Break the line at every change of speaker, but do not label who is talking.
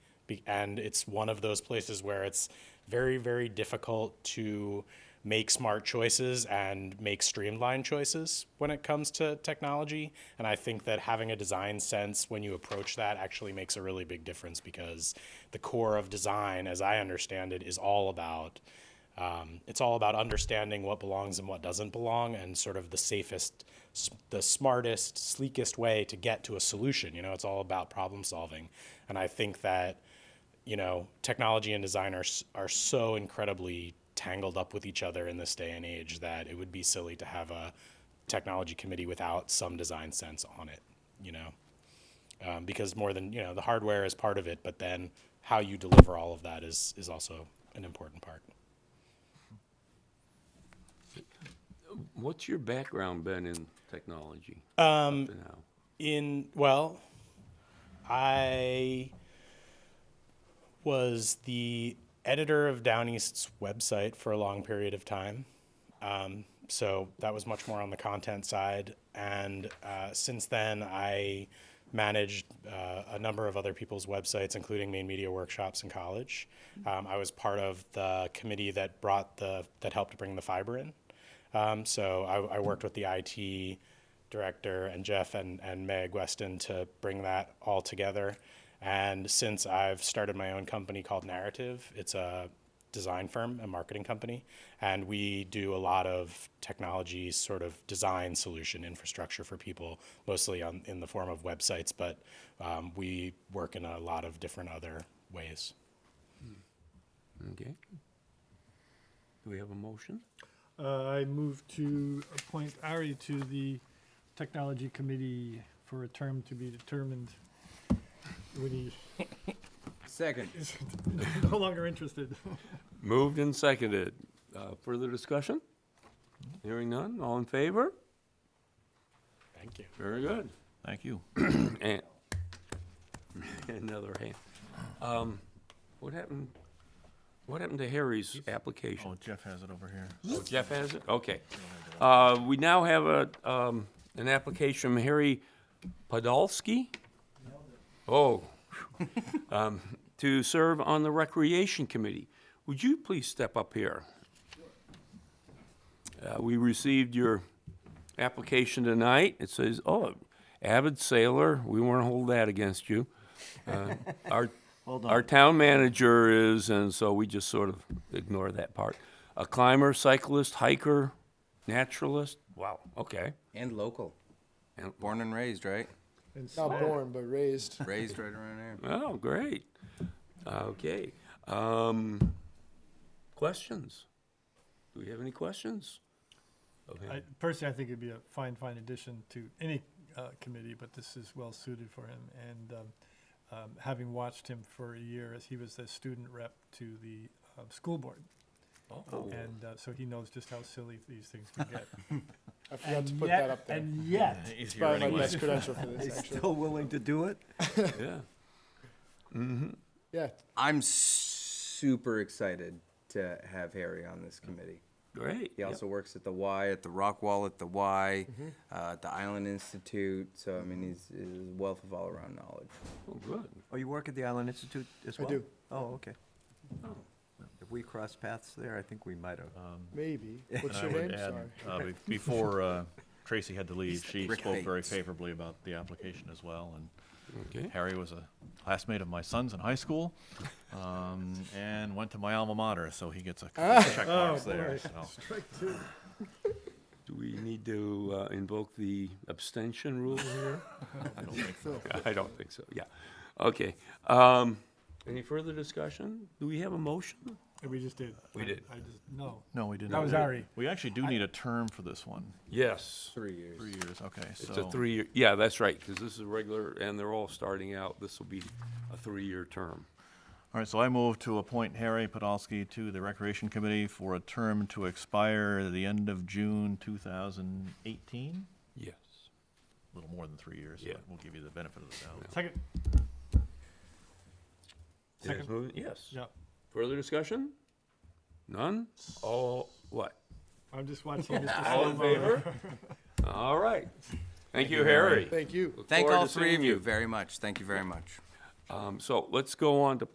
Be- And it's one of those places where it's very, very difficult to make smart choices and make streamlined choices when it comes to technology. And I think that having a design sense when you approach that actually makes a really big difference because the core of design, as I understand it, is all about um, it's all about understanding what belongs and what doesn't belong and sort of the safest s- the smartest sleekest way to get to a solution you know it's all about problem solving and i think that you know technology and design are, s- are so incredibly tangled up with each other in this day and age that it would be silly to have a technology committee without some design sense on it you know um, because more than you know the hardware is part of it but then how you deliver all of that is is also an important part
What's your background been in technology? up to now?
In well, I was the editor of Down East's website for a long period of time. Um, so that was much more on the content side. And uh, since then, I managed uh, a number of other people's websites, including main media workshops in college. Um, I was part of the committee that brought the that helped bring the fiber in. Um, so I, I worked with the IT director and Jeff and, and Meg Weston to bring that all together. And since I've started my own company called Narrative, it's a design firm and marketing company. And we do a lot of technology sort of design solution infrastructure for people, mostly on, in the form of websites, but um, we work in a lot of different other ways.
Okay. Do we have a motion?
Uh, I move to appoint Ari to the Technology Committee for a term to be determined when he
Second.
is no longer interested.
Moved and seconded. Uh, further discussion? Hearing none. All in favor?
Thank you.
Very good.
Thank you.
And another hand. Um, what happened? What happened to Harry's application?
Oh, Jeff has it over here.
Oh, Jeff has it. Okay. Uh, we now have a um, an application from Harry Podolsky. Oh, um, to serve on the recreation committee. Would you please step up here? Uh, we received your application tonight. It says, "Oh, avid sailor." We won't hold that against you. Uh, our our town manager is, and so we just sort of ignore that part. A climber, cyclist, hiker, naturalist. Wow. Okay.
And local.
And-
Born and raised, right?
And
Not
Smack-
born, but raised.
Raised right around there.
Oh, great. Okay. Um, questions? Do we have any questions?
I,
Okay.
personally, I think it'd be a fine, fine addition to any uh, committee, but this is well suited for him. And um, um, having watched him for a year as he was the student rep to the uh, school board,
Oh,
and uh, so he knows just how silly these things can get.
I forgot
And
to put
yet-
that up there.
And yet,
It's
Easier
probably my
anyway.
best credential for this, actually.
willing to do it?
yeah.
Mm-hmm.
Yeah,
I'm super excited to have Harry on this committee.
Great.
He also works at the Y, at the Rock Wall at the Y, uh, at the Island Institute. So, I mean, he's, he's a wealth of all around knowledge.
Oh, good.
Oh, you work at the Island Institute as
I
well?
do.
Oh, okay. If we crossed paths there, I think we might have.
maybe.
And
What's
I
your
would
name?
add,
Sorry.
uh, be- Before uh, Tracy had to leave, she
Rick
spoke very
Bates.
favorably about the application as well. And
Okay.
Harry was a classmate of my son's in high school um, and went to my alma mater, so he gets a
Ah! Oh,
checkbox there. so.
Do we need to uh, invoke the abstention rule here?
I don't think so.
I don't think so. Yeah. Okay. Um, any further discussion? Do we have a motion?
we just did.
We did.
I just, no.
No, we didn't.
That was Ari.
We actually do need a term for this one.
Yes.
Three years.
Three years, okay, so.
It's a three-year, yeah, that's right, because this is regular, and they're all starting out. This will be a three-year term.
All right, so I move to appoint Harry Podolsky to the Recreation Committee for a term to expire at the end of June 2018.
Yes.
A little more than three years,
Yeah.
but we'll give you the benefit of the doubt.
Second,
Second. Yes.
yeah.
Further discussion? None? All, what?
I'm just watching Mr.
All in
Slovo.
favor? All right. Thank you, Harry.
Thank you.
Look
Thank
forward
all
to
three
seeing
of you very much. Thank you very much.
Um, So let's go on to